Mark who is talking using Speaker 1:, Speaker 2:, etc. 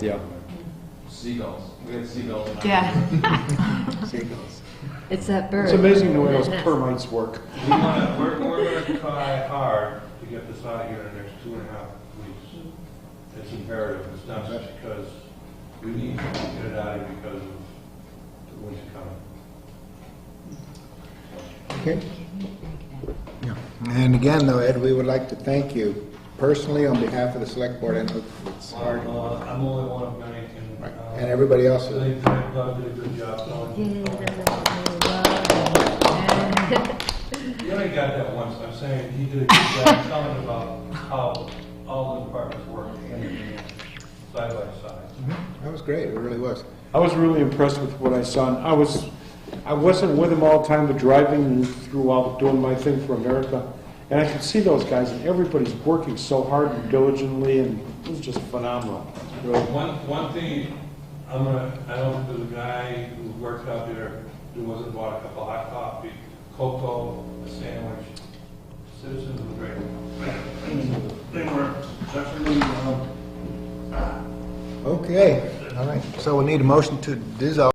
Speaker 1: Yeah.
Speaker 2: Seagulls. We had seagulls. in our-
Speaker 3: Yeah,
Speaker 4: It's that bird.
Speaker 1: It's amazing the way those
Speaker 4: Nest.
Speaker 1: termites work.
Speaker 2: We wanna, we're, we're gonna try hard to get this out of here in the next two and a half weeks. It's imperative, it's not just because we need to get it out of here because of the winter coming.
Speaker 5: Okay. Yeah. And again, though, Ed, we would like to thank you personally on behalf of the select board, I know it's hard.
Speaker 2: Uh, I'm only one of many, and.
Speaker 5: Right.
Speaker 2: uh,
Speaker 5: And everybody else is-
Speaker 2: They, they Doug did a good job, so.
Speaker 4: Yeah, that's what we love.
Speaker 2: You only got that once, I'm saying, he did a good job telling about how all the departments work, hand-in-hand, side by side.
Speaker 5: That was great, it really was.
Speaker 1: I was really impressed with what I saw. And I was, I wasn't with them all the time, but driving through while doing my thing for America, and I could see those guys, and everybody's working so hard and diligently, and it was just phenomenal. Really.
Speaker 2: One, one thing, I'm gonna, I don't, there's a guy who worked out there, who wasn't bought a cup of hot coffee, cocoa, a sandwich, citizens of the great.
Speaker 6: They were, definitely, uh,
Speaker 5: Okay, all right. So we need a motion to dissolve